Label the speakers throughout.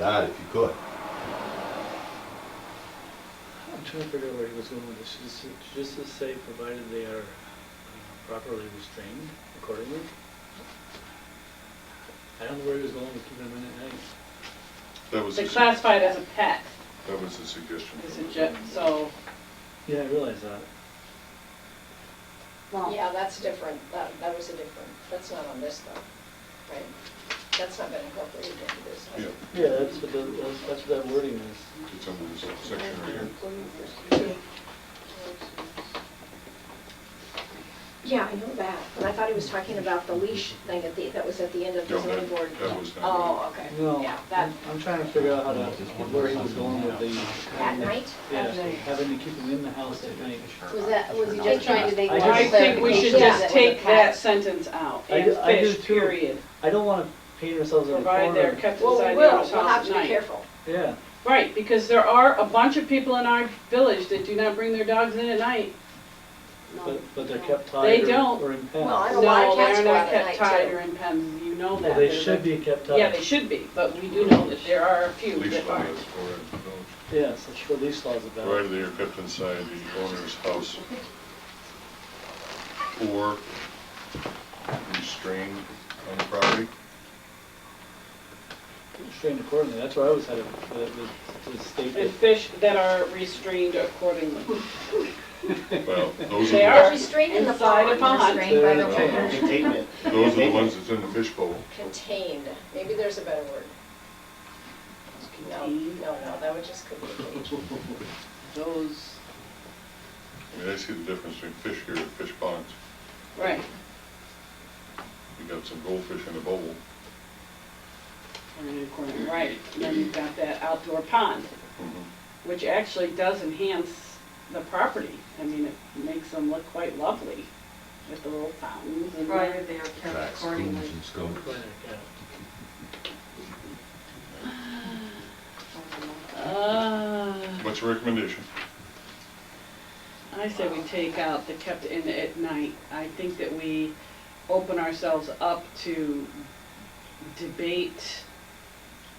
Speaker 1: that if you could.
Speaker 2: I'm trying to figure out where he was going with this. Just, just to say, provided they are uh, properly restrained accordingly. I don't know where he was going with keeping them in at night.
Speaker 3: That was,
Speaker 4: They
Speaker 3: a su-
Speaker 4: classify it as a pet,
Speaker 3: that was a suggestion.
Speaker 4: is
Speaker 3: from
Speaker 4: a
Speaker 3: the-
Speaker 4: ju- so,
Speaker 2: Yeah, I realize that.
Speaker 5: Yeah, that's different, that, that was a different, that's not on this though, right? That's not been incorporated into this. has
Speaker 3: Yeah,
Speaker 5: it?
Speaker 2: Yeah, that's what the, that's- that's what that wording is.
Speaker 3: it's under this section right here.
Speaker 5: Yeah, I know that, but I thought he was talking about the leash thing at the, that was at the end of the
Speaker 3: No,
Speaker 5: zoning
Speaker 3: that-
Speaker 5: board.
Speaker 3: that was not-
Speaker 5: Oh, okay,
Speaker 2: No,
Speaker 5: yeah, that,
Speaker 2: I'm I'm trying to figure out how to, where he was going with the.
Speaker 5: at night?
Speaker 2: Yeah, having to keep them in the house at night.
Speaker 6: Was that, was he just trying to make
Speaker 2: I
Speaker 6: more
Speaker 2: just-
Speaker 6: clarification?
Speaker 4: I think we should
Speaker 2: Yeah.
Speaker 4: just take that sentence out,
Speaker 2: I
Speaker 4: and
Speaker 2: do- I do
Speaker 4: fish,
Speaker 2: too.
Speaker 4: period.
Speaker 2: I don't wanna paint ourselves in a
Speaker 4: Provide they're
Speaker 2: corner.
Speaker 4: kept
Speaker 5: Well,
Speaker 4: inside
Speaker 5: we will,
Speaker 4: the house
Speaker 5: we'll have
Speaker 4: at
Speaker 5: to be
Speaker 4: night.
Speaker 5: careful.
Speaker 2: Yeah,
Speaker 4: Right, because there are a bunch of people in our village that do not bring their dogs in at night.
Speaker 6: No.
Speaker 2: but, but they're kept
Speaker 4: They
Speaker 2: tied or-
Speaker 4: don't.
Speaker 2: or in pens.
Speaker 5: Well, I know a lot
Speaker 4: No,
Speaker 5: of cats
Speaker 4: they're
Speaker 5: go
Speaker 4: not
Speaker 5: out at
Speaker 4: kept
Speaker 5: night
Speaker 4: tied or
Speaker 5: too.
Speaker 4: in pens, you know
Speaker 2: Well,
Speaker 4: that.
Speaker 2: They
Speaker 4: There's
Speaker 2: should
Speaker 4: a-
Speaker 2: be kept tied.
Speaker 4: Yeah, they should be, but we do know that there are a few
Speaker 3: Leash
Speaker 4: that
Speaker 3: law
Speaker 4: aren't.
Speaker 3: is for it.
Speaker 2: Yes, that's what these laws about.
Speaker 3: Provided they are kept inside the owner's house or restrained on the property.
Speaker 2: Restrained accordingly, that's where I always had it, uh, the, the, the
Speaker 4: And
Speaker 2: statement.
Speaker 4: fish that are restrained accordingly.
Speaker 3: Well, those
Speaker 4: They
Speaker 5: They're
Speaker 3: are,
Speaker 5: restrained in the
Speaker 4: Inside a
Speaker 5: pond,
Speaker 4: pond.
Speaker 5: restrained by the
Speaker 2: Yeah.
Speaker 5: owner.
Speaker 7: Containment.
Speaker 3: the- those are the ones that's in the fishbowl.
Speaker 5: Contained, maybe there's a better word. No,
Speaker 4: Contained.
Speaker 5: no, no, that would just could be cage.
Speaker 4: Those,
Speaker 3: I mean, I see the difference between fish here and fish ponds.
Speaker 4: right,
Speaker 3: You got some goldfish in a bowl.
Speaker 4: are in a corner, right. And then you've got that outdoor pond.
Speaker 3: Mhm.
Speaker 4: Mm-hmm. which actually does enhance the property. I mean, it makes them look quite lovely with the little fountains and.
Speaker 6: Provided they are kept
Speaker 1: Tracks, booms
Speaker 6: accordingly.
Speaker 1: and scopes.
Speaker 4: Uh,
Speaker 3: What's the recommendation?
Speaker 4: I say we take out the kept in at night. I think that we open ourselves up to debate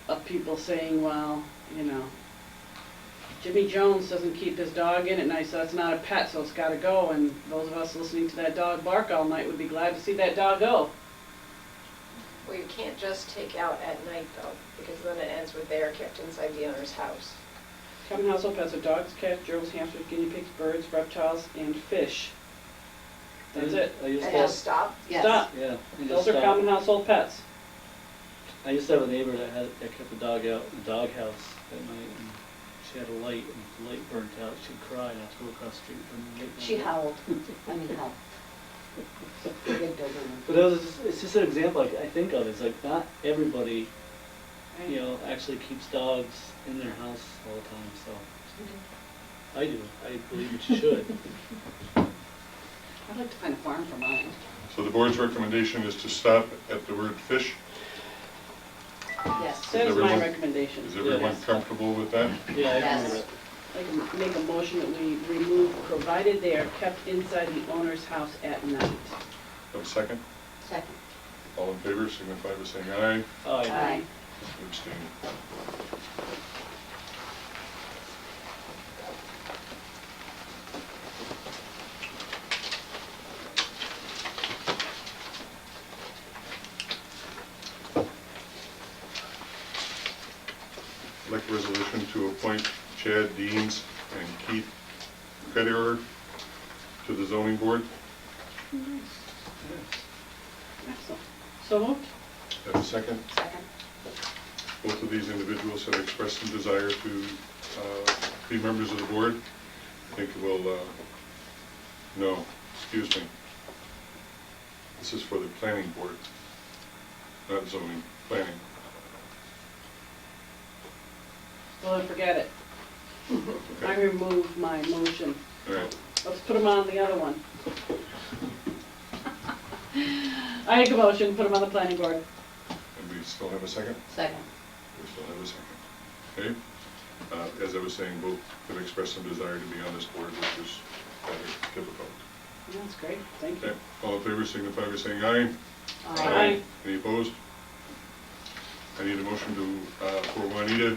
Speaker 4: of people saying, well, you know, Jimmy Jones doesn't keep his dog in at night, so that's not a pet, so it's gotta go. And those of us listening to that dog bark all night would be glad to see that dog go.
Speaker 5: Well, you can't just take out at night though, because then it ends with they are kept inside the owner's house.
Speaker 4: Common household pets are dogs, cats, gerbils, hamsters, guinea pigs, birds, reptiles, and fish. That's it.
Speaker 2: I
Speaker 5: And
Speaker 2: used to,
Speaker 5: just stop,
Speaker 6: Yes.
Speaker 4: Stop.
Speaker 2: yeah. I
Speaker 4: Those
Speaker 2: used
Speaker 4: are
Speaker 2: to-
Speaker 4: common household pets.
Speaker 2: I used to have a neighbor that had, that kept a dog out, in the doghouse at night, and she had a light, and if the light burnt out, she'd cry, and I'd have to go across the street from the light.
Speaker 6: She
Speaker 2: bulb.
Speaker 6: howled, I mean, howled. The big dog in
Speaker 2: But that was, just- it's just an example I, I think of, it's like, not everybody, you know, actually keeps dogs in their house all the time, so. I do, I believe you should.
Speaker 4: I'd like to find a farm for mine.
Speaker 3: So the board's recommendation is to stop at the word fish.
Speaker 6: Yes.
Speaker 4: That is my
Speaker 3: everyone-
Speaker 4: recommendation.
Speaker 3: Is everyone
Speaker 2: Yes.
Speaker 3: comfortable with that?
Speaker 2: Yeah, I remember
Speaker 6: Yes.
Speaker 2: it.
Speaker 4: I can make a motion that we remove, provided they are kept inside the owner's house at night.
Speaker 3: Have a second?
Speaker 6: Second.
Speaker 3: All in favor, signify by saying aye.
Speaker 2: Oh, yeah.
Speaker 6: Aye.
Speaker 3: Abstain. Like resolution to appoint Chad Deans and Keith Federer to the zoning board.
Speaker 4: Excellent. So moved?
Speaker 3: Have a second?
Speaker 6: Second.
Speaker 3: Both of these individuals have expressed some desire to uh, be members of the board. I think we'll, uh, no, excuse me. This is for the planning board, not zoning, planning.
Speaker 4: Well, then forget it. I
Speaker 3: Okay,
Speaker 4: remove my motion.
Speaker 3: all right.
Speaker 4: Let's put them on the other one. I make a motion, put them on the planning board.
Speaker 3: And we still have a second?
Speaker 6: Second.
Speaker 3: We still have a second. Okay? Uh, As I was saying, both have expressed some desire to be on this board, which is rather difficult.
Speaker 4: That's great, thank you.
Speaker 3: Okay, all in favor signify by saying aye.
Speaker 4: Aye.
Speaker 3: Any opposed? I need a motion to, uh, for Juanita